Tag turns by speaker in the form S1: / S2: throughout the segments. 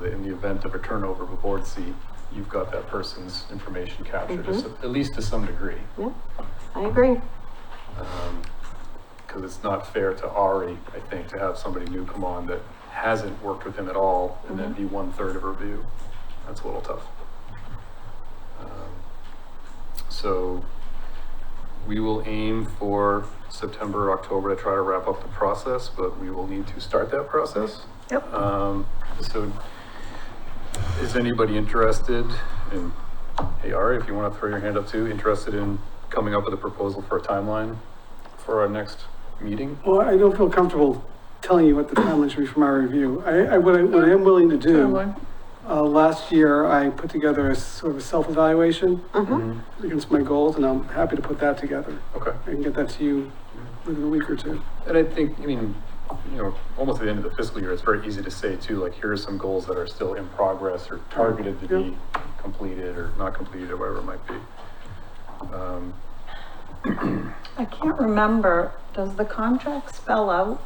S1: the event of a turnover of a board seat, you've got that person's information captured, to s- at least to some degree.
S2: Yeah, I agree.
S1: Because Um, it's not fair to Ari, I think, to have somebody new come on that hasn't worked with him at all and then be one-third of a review. That's a little tough. Um, So we will aim for September, October to try to wrap up the process, but we will need to start that process.
S3: Yep.
S1: Um, so is anybody interested in, hey, Ari, if you want to throw your hand up too, interested in coming up with a proposal for a timeline for our next meeting?
S4: Well, I don't feel comfortable telling you what the timeline should be from our review. I, I, what I, what I am willing to do,
S1: Timeline?
S4: uh, last year I put together a sort of a self-evaluation
S1: Mhm.
S4: against my goals and I'm happy to put that together.
S1: Okay.
S4: I can get that to you within a week or two.
S1: And I think, I mean, you know, almost at the end of the fiscal year, it's very easy to say too, like, here are some goals that are still in progress or targeted to be completed or not completed or whatever it might be. Um,
S3: I can't remember, does the contract spell out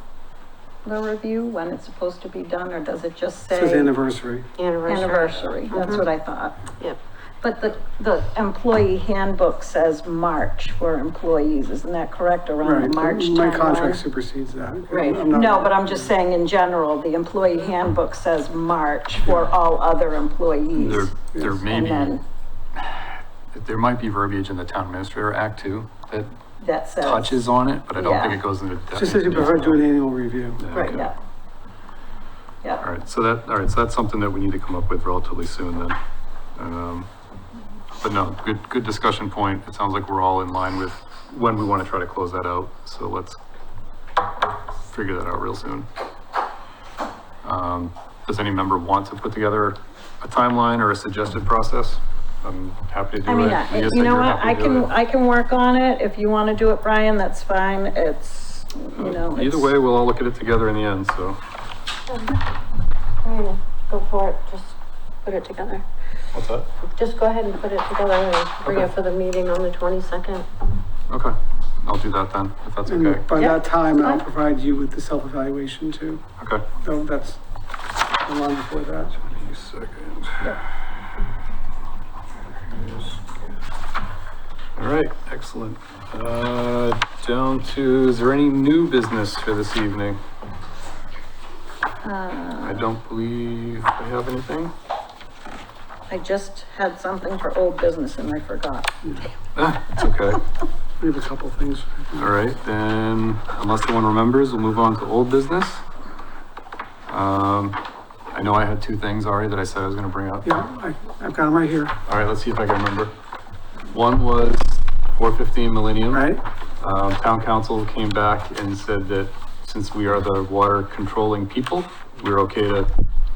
S3: the review, when it's supposed to be done, or does it just say?
S4: It says anniversary.
S2: Anniversary.
S3: Anniversary, that's what I thought.
S2: Yep.
S3: But the, the employee handbook says March for employees, isn't that correct, around
S4: Right.
S3: the March
S4: My
S3: timeline?
S4: contract supersedes that.
S3: Right,
S4: I'm not-
S3: no, but I'm just saying in general, the employee handbook says March for all other
S1: There,
S3: employees.
S1: there may
S3: And
S1: be,
S3: then
S1: there might be verbiage in the town administrator act too, that
S3: that says.
S1: touches on it, but I don't think
S3: Yeah.
S1: it goes into depth.
S4: It Just says you prefer to do an annual review.
S1: Yeah,
S3: Right,
S1: okay.
S3: yeah.
S1: All
S3: Yeah,
S1: right, so that, all right, so that's something that we need to come up with relatively soon then. Um, But no, good, good discussion point. It sounds like we're all in line with when we want to try to close that out, so let's figure that out real soon. Um, Does any member want to put together a timeline or a suggested process? I'm happy to do it.
S3: I mean,
S1: guess
S3: I-
S1: that
S3: you know
S1: you're
S3: what,
S1: happy
S3: I
S1: to do
S3: can,
S1: it.
S3: I can work on it, if you wanna do it, Brian, that's fine, it's, you know.
S1: Either
S3: it's-
S1: way, we'll all look at it together in the end, so
S2: I mean, go for it, just put it together.
S1: what's that?
S2: Just go ahead and put it together and bring it
S1: Okay.
S2: for the meeting on the twenty-second.
S1: Okay, I'll do that then, if that's okay.
S4: And by
S3: Yeah,
S4: that time,
S3: that's
S4: I'll
S3: fine.
S4: provide you with the self-evaluation too.
S3: Mm-hmm.
S1: Okay.
S4: So that's the line before that.
S1: Any second. All right, excellent. Uh, down to, is there any new business for this evening?
S3: Uh,
S1: I don't believe I have anything.
S3: I just had something for old business and I forgot.
S1: Ah, it's okay.
S4: We have a couple things.
S1: All right, then, unless someone remembers, we'll move on to old business. Um, I know I had two things already that I said I was gonna bring up.
S4: Yeah, I, I've got them right here,
S1: All right, let's see if I can remember. One was four fifteen Millennium.
S4: right?
S1: Um, town council came back and said that since we are the water controlling people, we're okay to.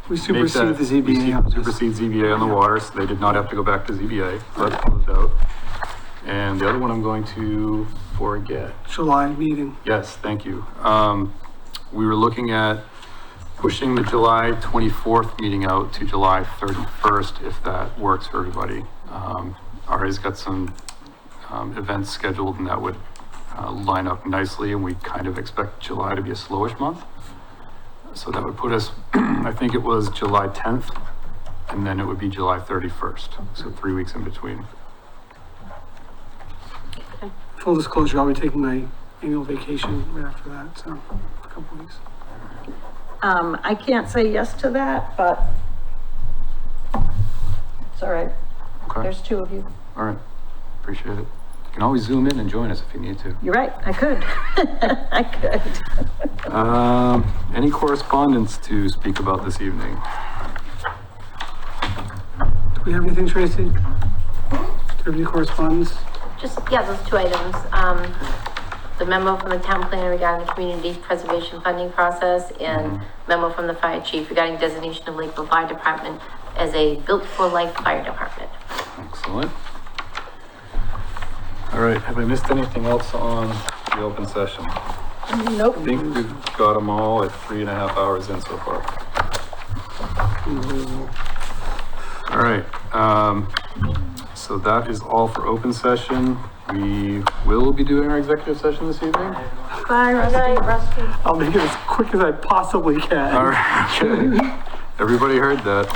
S4: We
S1: make that-
S4: supersede the
S1: we
S4: ZBA.
S1: su-
S4: on this.
S1: Supersede ZBA on the water, so they did not have to go back to ZBA, so that's closed out. And the other one I'm going to forget.
S4: July meeting.
S1: Yes, thank you. Um, we were looking at pushing the July 24th meeting out to July 31st, if that works for everybody. Um, Ari's got some, um, events scheduled and that would, uh, line up nicely and we kind of expect July to be a slowish month. So that would put us, I think it was July 10th and then it would be July 31st, so three weeks in between.
S4: Full disclosure, I'll be taking my annual vacation right after that, so a couple weeks.
S3: Um, I can't say yes to that, but it's all right,
S1: Okay,
S3: there's two of you.
S1: all right, appreciate it. You can always zoom in and join us if you need to.
S3: You're right, I could. I could.
S1: Um, any correspondence to speak about this evening?
S4: Do we have anything, Tracy? Do you have any correspondence?
S2: Just, yeah, those two items, um, the memo from the town planner regarding the community preservation funding process and memo from the fire chief regarding designation of Lakeville Fire Department as a built-for-life fire department.
S1: Excellent. All right, have I missed anything else on the open session? I
S3: Nope.
S1: think we've got them all at three and a half hours in so far. All right, um, so that is all for open session. We will be doing our executive session this evening.
S3: Bye, Rusty.
S4: I'll make it as quick as I possibly can.
S1: All right, okay. Everybody heard that.